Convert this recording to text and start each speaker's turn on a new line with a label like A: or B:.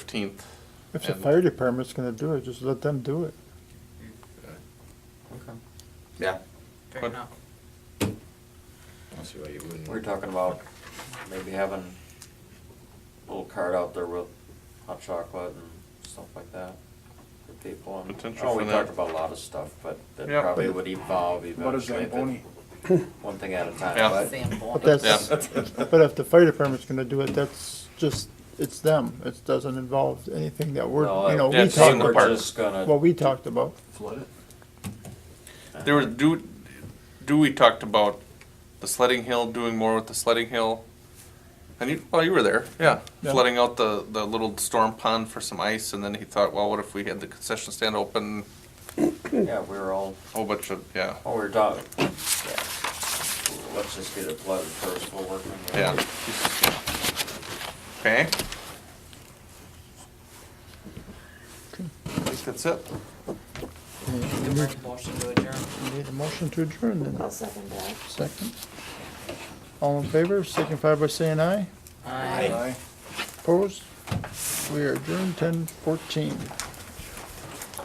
A: fifteenth.
B: If the fire department's gonna do it, just let them do it.
C: Okay.
D: Yeah,
C: Fair
A: But-
C: enough.
D: I don't see why you wouldn't.
C: We're talking about maybe having a little cart out there with hot chocolate and stuff like that for people. and-
A: Potential
C: Oh,
A: for
C: we
A: that.
C: talked about a lot of stuff, but that
A: Yeah.
C: probably would evolve eventually.
E: What is
C: if it-
E: Zamboni?
C: One thing at a time,
A: Yeah.
B: But
C: but. Zamboni.
B: that's, but if the fire department's gonna do it, that's just, it's them. It doesn't involve anything that we're, you know,
A: Yeah,
B: we
A: it's in
B: talked
A: the
B: about,
A: park.
C: We're just gonna,
B: what we talked about.
E: Flood it?
A: There was, do, do we talked about the sledding hill, doing more with the sledding hill? And you, well, you were there, yeah,
B: Yeah.
A: flooding out the, the little storm pond for some ice, and then he thought, well, what if we had the concession stand open?
C: yeah, we were all,
A: Whole bunch of, yeah,
C: oh, we're done. Yeah. Let's just get it flooded first, we'll work on the
A: yeah.
C: other.
A: Okay. I think that's it.
B: We Need
C: Motion to adjourn.
B: we need a motion to adjourn then,
F: I'll second that.
B: second. All in favor, signify by saying aye.
C: Aye.
B: Opposed? We are adjourned ten fourteen.